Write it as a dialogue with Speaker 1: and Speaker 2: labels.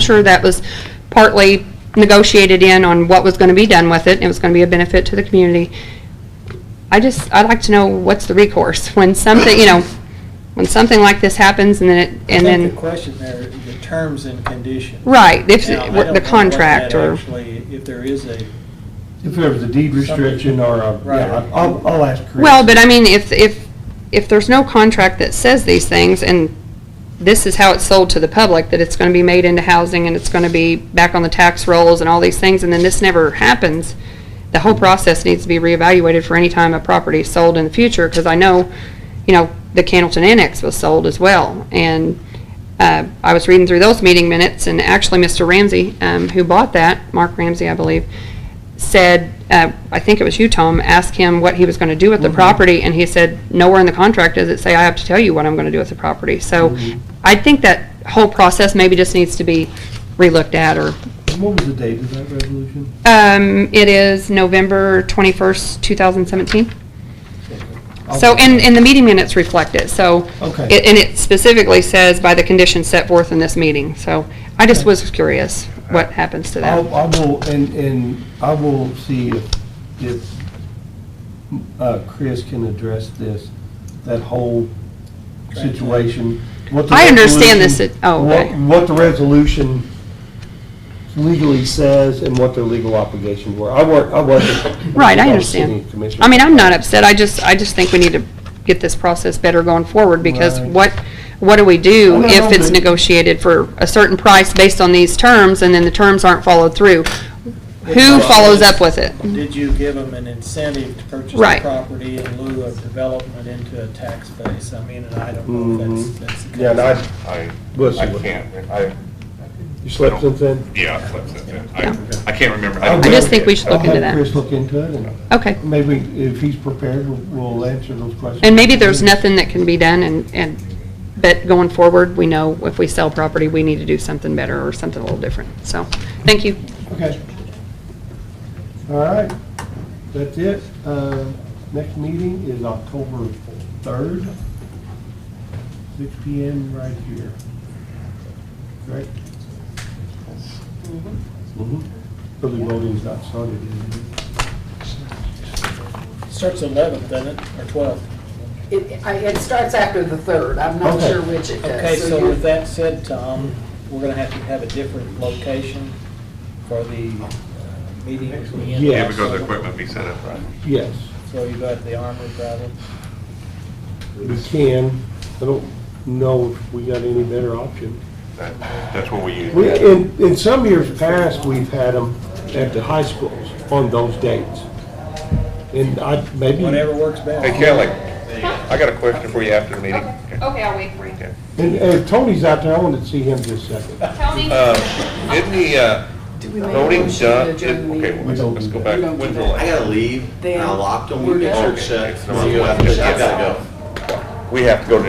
Speaker 1: sure that was partly negotiated in on what was gonna be done with it, and it was gonna be a benefit to the community. I just, I'd like to know what's the recourse when something, you know, when something like this happens and then it, and
Speaker 2: I think the
Speaker 1: then,
Speaker 2: question there, the terms and conditions.
Speaker 1: right, if,
Speaker 2: Now, I don't know
Speaker 1: the
Speaker 2: what
Speaker 1: contract
Speaker 2: that
Speaker 1: or,
Speaker 2: Actually, if there is a,
Speaker 3: If there was a deed restriction or a,
Speaker 2: Right.
Speaker 3: yeah, I'll, I'll ask Chris.
Speaker 1: well, but I mean, if, if, if there's no contract that says these things and this is how it's sold to the public, that it's gonna be made into housing and it's gonna be back on the tax rolls and all these things, and then this never happens, the whole process needs to be reevaluated for any time a property is sold in the future, because I know, you know, the Candleton Annex was sold as well, and uh, I was reading through those meeting minutes, and actually, Mr. Ramsey, um, who bought that, Mark Ramsey, I believe, said, uh, I think it was you, Tom, asked him what he was gonna do with the property, and he said, nowhere in the contract does it say I have to tell you what I'm gonna do with the property. So I think that whole process maybe just needs to be relooked at, or,
Speaker 3: What was the date of that resolution?
Speaker 1: um, it is November twenty-first, two thousand seventeen. So, and, and the meeting minutes reflect it, so.
Speaker 3: Okay.
Speaker 1: it- And it specifically says by the conditions set forth in this meeting, so I just was curious what happens to
Speaker 3: I'll-
Speaker 1: that.
Speaker 3: I will, and, and I will see if, if uh, Chris can address this, that whole situation. what the
Speaker 1: I understand this,
Speaker 3: resolution-
Speaker 1: it- oh,
Speaker 3: what-
Speaker 1: okay.
Speaker 3: What the resolution legally says and what their legal obligations were. I weren't, I wasn't.
Speaker 1: Right, I
Speaker 3: was
Speaker 1: understand.
Speaker 3: city commissioner.
Speaker 1: I mean, I'm not upset, I just, I just think we need to get this process better going forward, because
Speaker 3: Right.
Speaker 1: what, what do we
Speaker 3: I
Speaker 1: do
Speaker 3: know,
Speaker 1: if it's
Speaker 3: but-
Speaker 1: negotiated for a certain price based on these terms, and then the terms aren't followed through? Who follows up with it?
Speaker 2: did you give them an incentive to purchase the
Speaker 1: Right.
Speaker 2: property in lieu of development into a tax base? I mean, and I don't know if that's, that's. the
Speaker 3: Yeah, and
Speaker 2: case.
Speaker 3: I,
Speaker 4: I,
Speaker 3: We'll see
Speaker 4: I
Speaker 3: what-
Speaker 4: can't, I,
Speaker 3: you slept since then?
Speaker 4: yeah, I slept since then. I,
Speaker 1: Yeah.
Speaker 4: I can't remember.
Speaker 3: I
Speaker 4: don't
Speaker 1: I just
Speaker 4: know.
Speaker 1: think we should look into
Speaker 3: I'll have
Speaker 1: that.
Speaker 3: Chris look into it and
Speaker 1: Okay,
Speaker 3: maybe if he's prepared, we'll- we'll answer those questions.
Speaker 1: and maybe there's nothing that can be done, and, and, but going forward, we know if we sell property, we need to do something better or something a little different, so, thank you.
Speaker 3: Okay. All right, that's it. Uh, Next meeting is October 3rd, six PM right here. Correct? Mhm. Early voting's not started, is it?
Speaker 2: Starts eleventh, doesn't it, or twelfth?
Speaker 5: It, I- it starts after the third, I'm not
Speaker 3: Okay.
Speaker 5: sure which it does.
Speaker 2: Okay, so
Speaker 5: you're-
Speaker 2: with that said, Tom, we're gonna have to have a different location for the uh, meeting.
Speaker 3: Yeah,
Speaker 4: Yeah, because the equipment be set up right.
Speaker 3: Yes,
Speaker 2: So you got the armor problem?
Speaker 3: we can. I don't know if we got any better option.
Speaker 4: That- That's what we
Speaker 3: We,
Speaker 4: use.
Speaker 3: in, in some years past, we've had them at the high schools on those dates. And I, maybe,
Speaker 2: Whatever
Speaker 3: and,
Speaker 2: works
Speaker 4: Hey
Speaker 2: best.
Speaker 4: Kelly, I got a question for you after the meeting.
Speaker 1: I'll wait for you.
Speaker 3: and Tony's out there, I wanted to see him just a second.
Speaker 4: Uh, Isn't the, uh,
Speaker 5: Do we make a
Speaker 4: voting
Speaker 5: motion to
Speaker 4: done? is-
Speaker 5: adjourn the
Speaker 4: Okay,
Speaker 5: meeting?
Speaker 4: well, let's go back.
Speaker 5: We don't do
Speaker 4: When's the
Speaker 5: that.
Speaker 4: last-
Speaker 6: I gotta leave, and I
Speaker 5: Then
Speaker 6: locked them,
Speaker 5: we're
Speaker 6: the
Speaker 5: done.
Speaker 6: church shut,
Speaker 4: Okay.
Speaker 6: so I gotta go.
Speaker 4: We have to go to